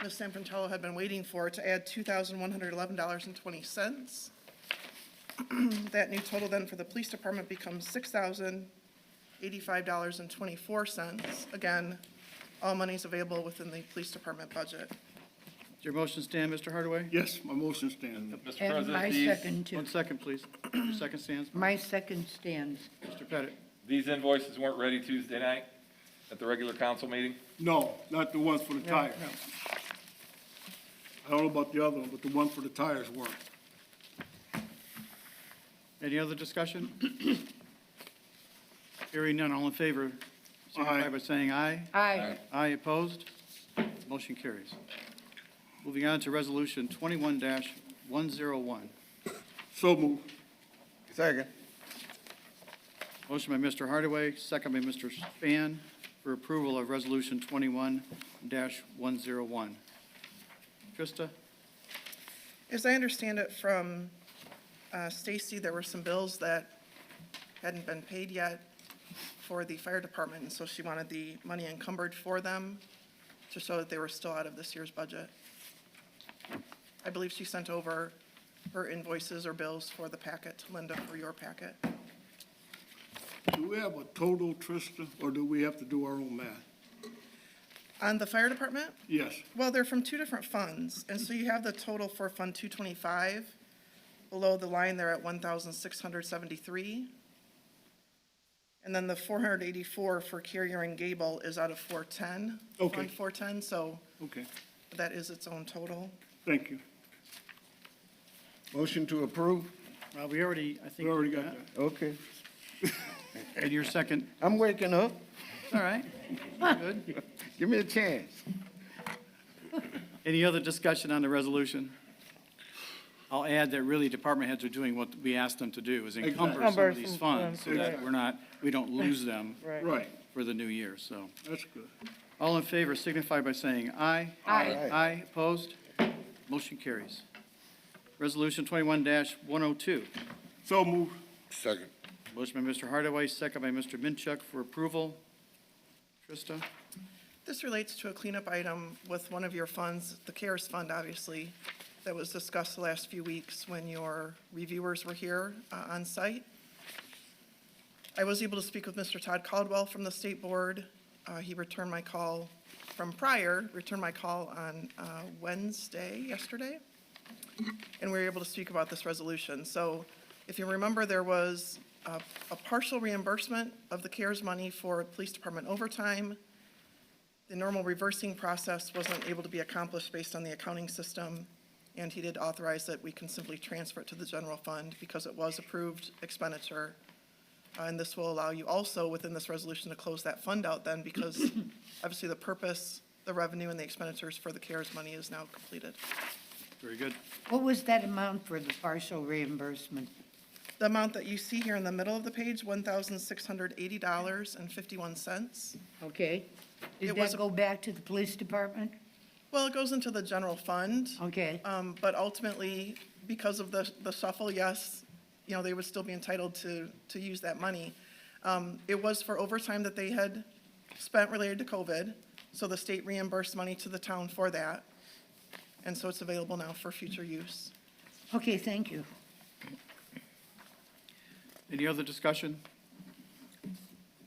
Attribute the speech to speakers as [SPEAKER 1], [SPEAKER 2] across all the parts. [SPEAKER 1] Ms. Sanfrentalo had been waiting for to add $2,111.20. That new total then for the police department becomes $6,085.24. Again, all monies available within the police department budget.
[SPEAKER 2] Does your motion stand, Mr. Hardaway?
[SPEAKER 3] Yes, my motion stands.
[SPEAKER 4] Mr.
[SPEAKER 5] And my
[SPEAKER 4] President, these,
[SPEAKER 5] second, too.
[SPEAKER 2] One second, please. Your second stands.
[SPEAKER 5] My second stands.
[SPEAKER 2] Mr. Pettit.
[SPEAKER 4] these invoices weren't ready Tuesday night at the regular council meeting?
[SPEAKER 3] No, not the ones for the tires. I don't know about the other one, but the one for the tires weren't.
[SPEAKER 2] Any other discussion? Hearing none, all in favor, signify
[SPEAKER 3] Aye.
[SPEAKER 2] by saying aye.
[SPEAKER 5] Aye.
[SPEAKER 2] Aye opposed? Motion carries. Moving on to Resolution 21-101.
[SPEAKER 3] So moved.
[SPEAKER 6] Second.
[SPEAKER 2] Motion by Mr. Hardaway, second by Mr. Span for approval of Resolution 21-101. Trista?
[SPEAKER 1] As I understand it from uh, Stacy, there were some bills that hadn't been paid yet for the fire department, and so she wanted the money encumbered for them to show that they were still out of this year's budget. I believe she sent over her invoices or bills for the packet to Linda for your packet.
[SPEAKER 3] Do we have a total, Trista, or do we have to do our own math?
[SPEAKER 1] On the fire department,
[SPEAKER 3] Yes,
[SPEAKER 1] well, they're from two different funds, and so you have the total for Fund 225. Below the line, they're at 1,673. And then the 484 for Carrier and Gable is out of 410.
[SPEAKER 3] Okay.
[SPEAKER 1] Fund 410, so
[SPEAKER 3] okay,
[SPEAKER 1] that is its own total.
[SPEAKER 3] thank you.
[SPEAKER 6] Motion to approve?
[SPEAKER 2] Uh, We already, I think.
[SPEAKER 3] We already got that.
[SPEAKER 6] Okay.
[SPEAKER 2] And your second,
[SPEAKER 6] I'm waking up.
[SPEAKER 2] all right. Good.
[SPEAKER 6] Give me a chance.
[SPEAKER 2] Any other discussion on the resolution? I'll add that really department heads are doing what we asked them to do, is encumber some
[SPEAKER 7] Encumber
[SPEAKER 2] of these
[SPEAKER 7] some
[SPEAKER 2] funds so
[SPEAKER 7] funds,
[SPEAKER 2] that
[SPEAKER 7] right.
[SPEAKER 2] we're not, we don't lose them
[SPEAKER 3] Right,
[SPEAKER 2] for the new year, so.
[SPEAKER 3] that's good.
[SPEAKER 2] All in favor signify by saying aye.
[SPEAKER 5] Aye.
[SPEAKER 2] Aye, opposed? Motion carries. Resolution 21-102.
[SPEAKER 3] So moved.
[SPEAKER 6] Second.
[SPEAKER 2] Motion by Mr. Hardaway, second by Mr. Minchuk for approval. Trista?
[SPEAKER 1] This relates to a cleanup item with one of your funds, the CARES Fund, obviously, that was discussed the last few weeks when your reviewers were here uh, on site. I was able to speak with Mr. Todd Caldwell from the State Board. Uh, He returned my call from prior, returned my call on uh, Wednesday, yesterday, and we were able to speak about this resolution. So if you remember, there was uh, a partial reimbursement of the CARES money for police department overtime. The normal reversing process wasn't able to be accomplished based on the accounting system, and he did authorize that we can simply transfer it to the general fund because it was approved expenditure. Uh, And this will allow you also, within this resolution, to close that fund out then, because obviously the purpose, the revenue, and the expenditures for the CARES money is now completed.
[SPEAKER 2] Very good.
[SPEAKER 5] What was that amount for the partial reimbursement?
[SPEAKER 1] The amount that you see here in the middle of the page, $1,680.51,
[SPEAKER 5] Okay?
[SPEAKER 1] It
[SPEAKER 5] Did
[SPEAKER 1] was
[SPEAKER 5] that
[SPEAKER 1] a-
[SPEAKER 5] go back to the police department?
[SPEAKER 1] well, it goes into the general fund.
[SPEAKER 5] Okay,
[SPEAKER 1] Um, But ultimately, because of the the shuffle, yes, you know, they would still be entitled to, to use that money. Um, It was for overtime that they had spent related to COVID, so the state reimbursed money to the town for that. And so it's available now for future use.
[SPEAKER 5] okay, thank you.
[SPEAKER 2] Any other discussion?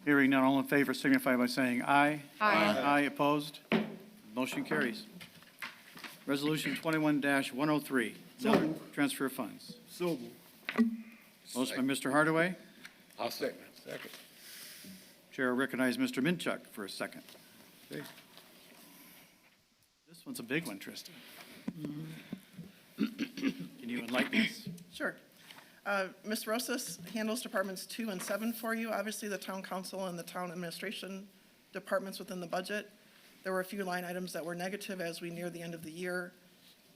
[SPEAKER 2] Hearing none, all in favor signify by saying aye.
[SPEAKER 5] Aye.
[SPEAKER 2] Aye opposed? Motion carries. Resolution 21-103, another oh transfer of funds.
[SPEAKER 3] So moved.
[SPEAKER 2] Motion by Mr. Hardaway.
[SPEAKER 6] I'll second. Second.
[SPEAKER 2] Chair recognizes Mr. Minchuk for a second. This one's a big one, Trista. Can you enlighten us?
[SPEAKER 1] Sure. Uh, Ms. Rosas handles Departments 2 and 7 for you. Obviously, the town council and the town administration departments within the budget. There were a few line items that were negative as we near the end of the year.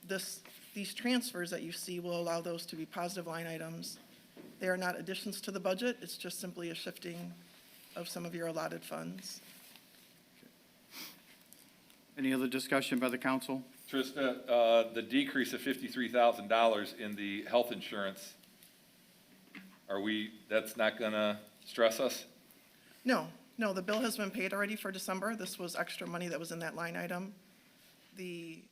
[SPEAKER 1] This, these transfers that you see will allow those to be positive line items. They are not additions to the budget, it's just simply a shifting of some of your allotted funds.
[SPEAKER 2] Any other discussion by the council?
[SPEAKER 4] Trista, uh, the decrease of fifty-three thousand dollars in the health insurance, are we, that's not gonna stress us?
[SPEAKER 1] No, no, the bill has been paid already for December. This was extra money that was in that line item. The